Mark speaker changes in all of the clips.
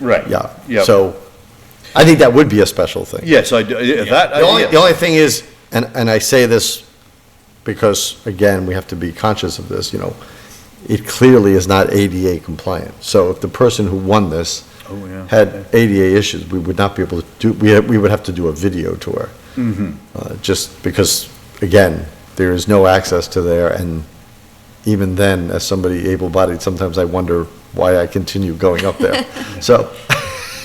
Speaker 1: Right.
Speaker 2: Yeah.
Speaker 1: Yep.
Speaker 2: So I think that would be a special thing.
Speaker 1: Yes, I, do- yeah, that,
Speaker 2: The only,
Speaker 1: I-
Speaker 2: the
Speaker 1: yes.
Speaker 2: only thing is, and, and I say this because, again, we have to be conscious of this, you know, it clearly is not ADA compliant. So if the person who won this
Speaker 1: Oh, yeah.
Speaker 2: had ADA issues, we would not be able to do, we, we would have to do a video tour.
Speaker 1: Mm-hmm.
Speaker 2: Uh, just because, again, there is no access to there, and even then, as somebody able-bodied, sometimes I wonder why I continue going up there. So,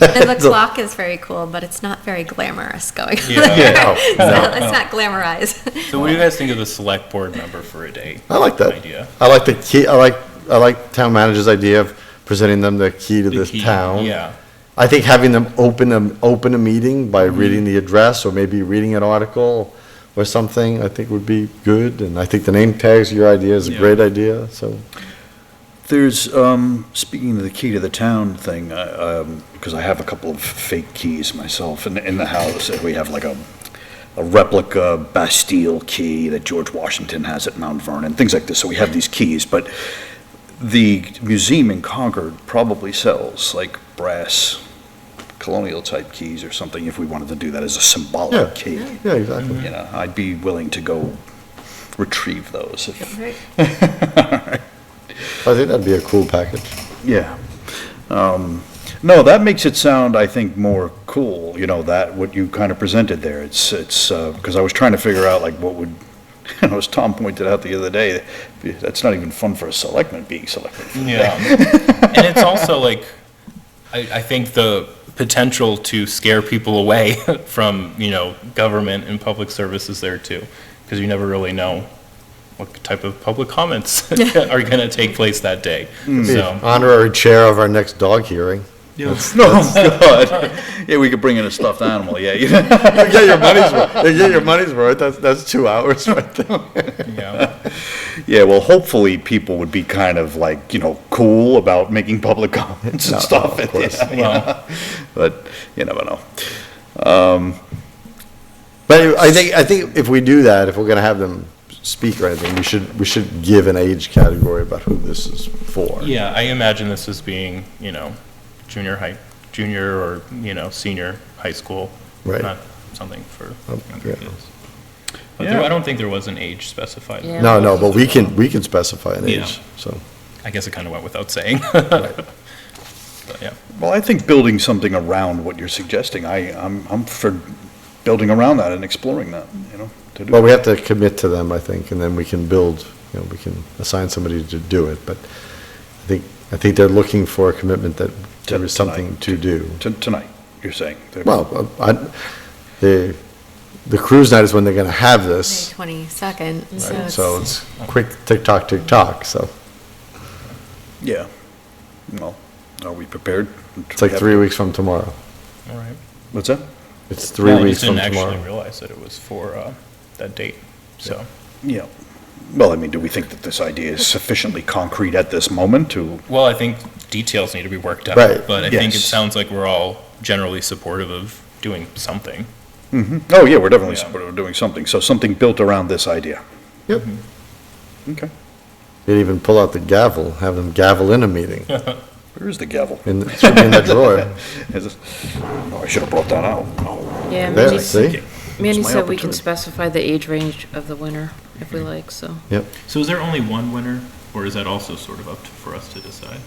Speaker 3: And the
Speaker 2: So-
Speaker 3: clock is very cool, but it's not very glamorous going on
Speaker 4: Yeah.
Speaker 3: there.
Speaker 2: Yeah,
Speaker 3: So
Speaker 2: no, no.
Speaker 3: Let's not glamorize.
Speaker 4: So what do you guys think of the select board member for a day?
Speaker 2: I like that.
Speaker 4: Idea.
Speaker 2: I like the key, I like, I like town manager's idea of presenting them the key to
Speaker 4: The
Speaker 2: this
Speaker 4: key,
Speaker 2: town.
Speaker 4: Yeah.
Speaker 2: I think having them open, a- open a meeting by
Speaker 4: Mm-hmm.
Speaker 2: reading the address, or maybe reading an article or something, I think would be good, and I think the name tags, your idea is a
Speaker 4: Yeah.
Speaker 2: great idea, so.
Speaker 1: There's, um, speaking of the key to the town thing, uh, um, because I have a couple of fake keys myself in, in the house, and we have like a, a replica Bastille key that George Washington has at Mount Vernon, things like this, so we have these keys, but the museum in Concord probably sells like brass colonial type keys or something, if we wanted to do that as a
Speaker 2: Yeah.
Speaker 1: symbolic key.
Speaker 2: Yeah, exactly.
Speaker 1: You know, I'd be willing to go retrieve those if,
Speaker 2: I think that'd be a cool package.
Speaker 1: Yeah. Um, No, that makes it sound, I think, more cool, you know, that, what you kind of presented there. It's, it's, because I was trying to figure out, like, what would, you know, as Tom pointed out the other day, that's not even fun for a selectman being selected.
Speaker 4: Yeah. and it's also like, I, I think the potential to scare people away from, you know, government and public services there too, because you never really know what type of public comments are going to take place that day.
Speaker 2: Be
Speaker 4: So,
Speaker 2: Honorary chair of our next dog hearing.
Speaker 1: No, God. Yeah, we could bring in a stuffed animal, yeah. you know.
Speaker 2: You get your money's worth, you get your money's worth, that's, that's two hours right there.
Speaker 4: yeah.
Speaker 1: Yeah, well, hopefully, people would be kind of like, you know, cool about making public comments
Speaker 2: No,
Speaker 1: and stuff.
Speaker 2: of course.
Speaker 1: yeah, yeah. But you never know.
Speaker 2: But I think, I think if we do that, if we're gonna have them speak or anything, we should, we should give an age category about who this is for.
Speaker 4: Yeah, I imagine this as being, you know, junior high, junior or, you know, senior high school.
Speaker 2: Right.
Speaker 4: Not something for
Speaker 2: Oh,
Speaker 4: younger
Speaker 2: yeah.
Speaker 4: kids. But there,
Speaker 1: Yeah.
Speaker 4: I don't think there was an age specified.
Speaker 5: Yeah.
Speaker 2: No, no, but we can, we can specify an
Speaker 4: Yeah.
Speaker 2: age, so.
Speaker 4: I guess it kind of went without saying. But yeah,
Speaker 1: Well, I think building something around what you're suggesting, I, I'm, I'm for building around that and exploring that, you know, to do.
Speaker 2: Well, we have to commit to them, I think, and then we can build, you know, we can assign somebody to do it, but I think, I think they're looking for a commitment that there is something to do.
Speaker 1: To- Tonight, you're saying.
Speaker 2: Well, I, the, the cruise night is when they're gonna have this,
Speaker 3: Twenty-second,
Speaker 2: right?
Speaker 3: so
Speaker 2: So
Speaker 3: it's,
Speaker 2: it's quick tick-tock, tick-tock, so
Speaker 1: Yeah. Well, are we prepared?
Speaker 2: it's like three weeks from tomorrow.
Speaker 4: all right.
Speaker 1: What's that?
Speaker 2: It's three
Speaker 4: No,
Speaker 2: weeks from
Speaker 4: I just didn't
Speaker 2: tomorrow.
Speaker 4: actually realize that it was for uh, that date, so.
Speaker 1: Yeah. Well, I mean, do we think that this idea is sufficiently concrete at this moment to?
Speaker 4: Well, I think details need to be worked out.
Speaker 2: Right,
Speaker 4: But I think it
Speaker 1: yes.
Speaker 4: sounds like we're all generally supportive of doing something.
Speaker 1: Oh, yeah, we're definitely
Speaker 4: Yeah.
Speaker 1: supportive of doing something. So something built around this idea. Mm-hmm.
Speaker 2: Yep.
Speaker 1: Okay.
Speaker 2: You'd even pull out the gavel, have them gavel in a meeting,
Speaker 1: Where is the gavel?
Speaker 2: in, it should be in the drawer.
Speaker 1: Is it- Oh, I should have brought that out. Oh,
Speaker 5: Yeah,
Speaker 2: There,
Speaker 5: Mandy,
Speaker 2: see?
Speaker 5: Mandy
Speaker 1: my
Speaker 5: said we can
Speaker 1: opportunity.
Speaker 5: specify the age range of the winner if we like, so.
Speaker 2: Yep.
Speaker 4: So is there only one winner, or is that also sort of up to- for us to decide?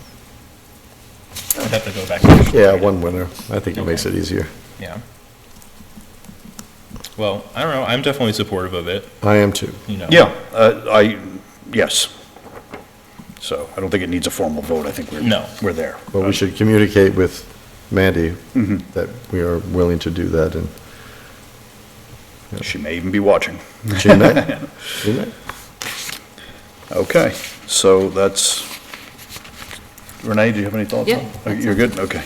Speaker 4: I'd have to go back. and-
Speaker 2: Yeah, one winner. I think it makes it easier.
Speaker 4: Yeah. Well, I don't know, I'm definitely supportive of it,
Speaker 2: I am too.
Speaker 4: you know.
Speaker 1: Yeah, uh, I, yes. So I don't think it needs a formal vote. I think we're.
Speaker 4: No.
Speaker 1: We're there.
Speaker 2: But we should communicate with Mandy
Speaker 4: Mm-hmm.
Speaker 2: that we are willing to do that and
Speaker 1: She may even be watching.
Speaker 2: she may. She may.
Speaker 1: Okay, so that's, Renee, do you have any thoughts? on-
Speaker 5: Yeah.
Speaker 1: You're good? Okay.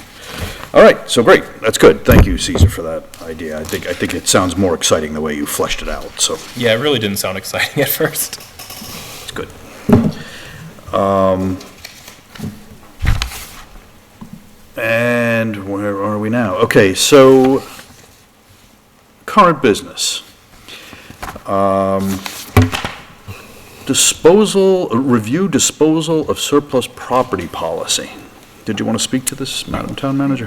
Speaker 1: All right, so great. That's good. Thank you, Caesar, for that idea. I think, I think it sounds more exciting the way you fleshed it out, so
Speaker 4: Yeah, it really didn't sound exciting at first.
Speaker 1: it's good. Um, And where are we now? Okay, so current business. Um, Disposal, review disposal of surplus property policy. Did you want to speak to this, Madam Town Manager?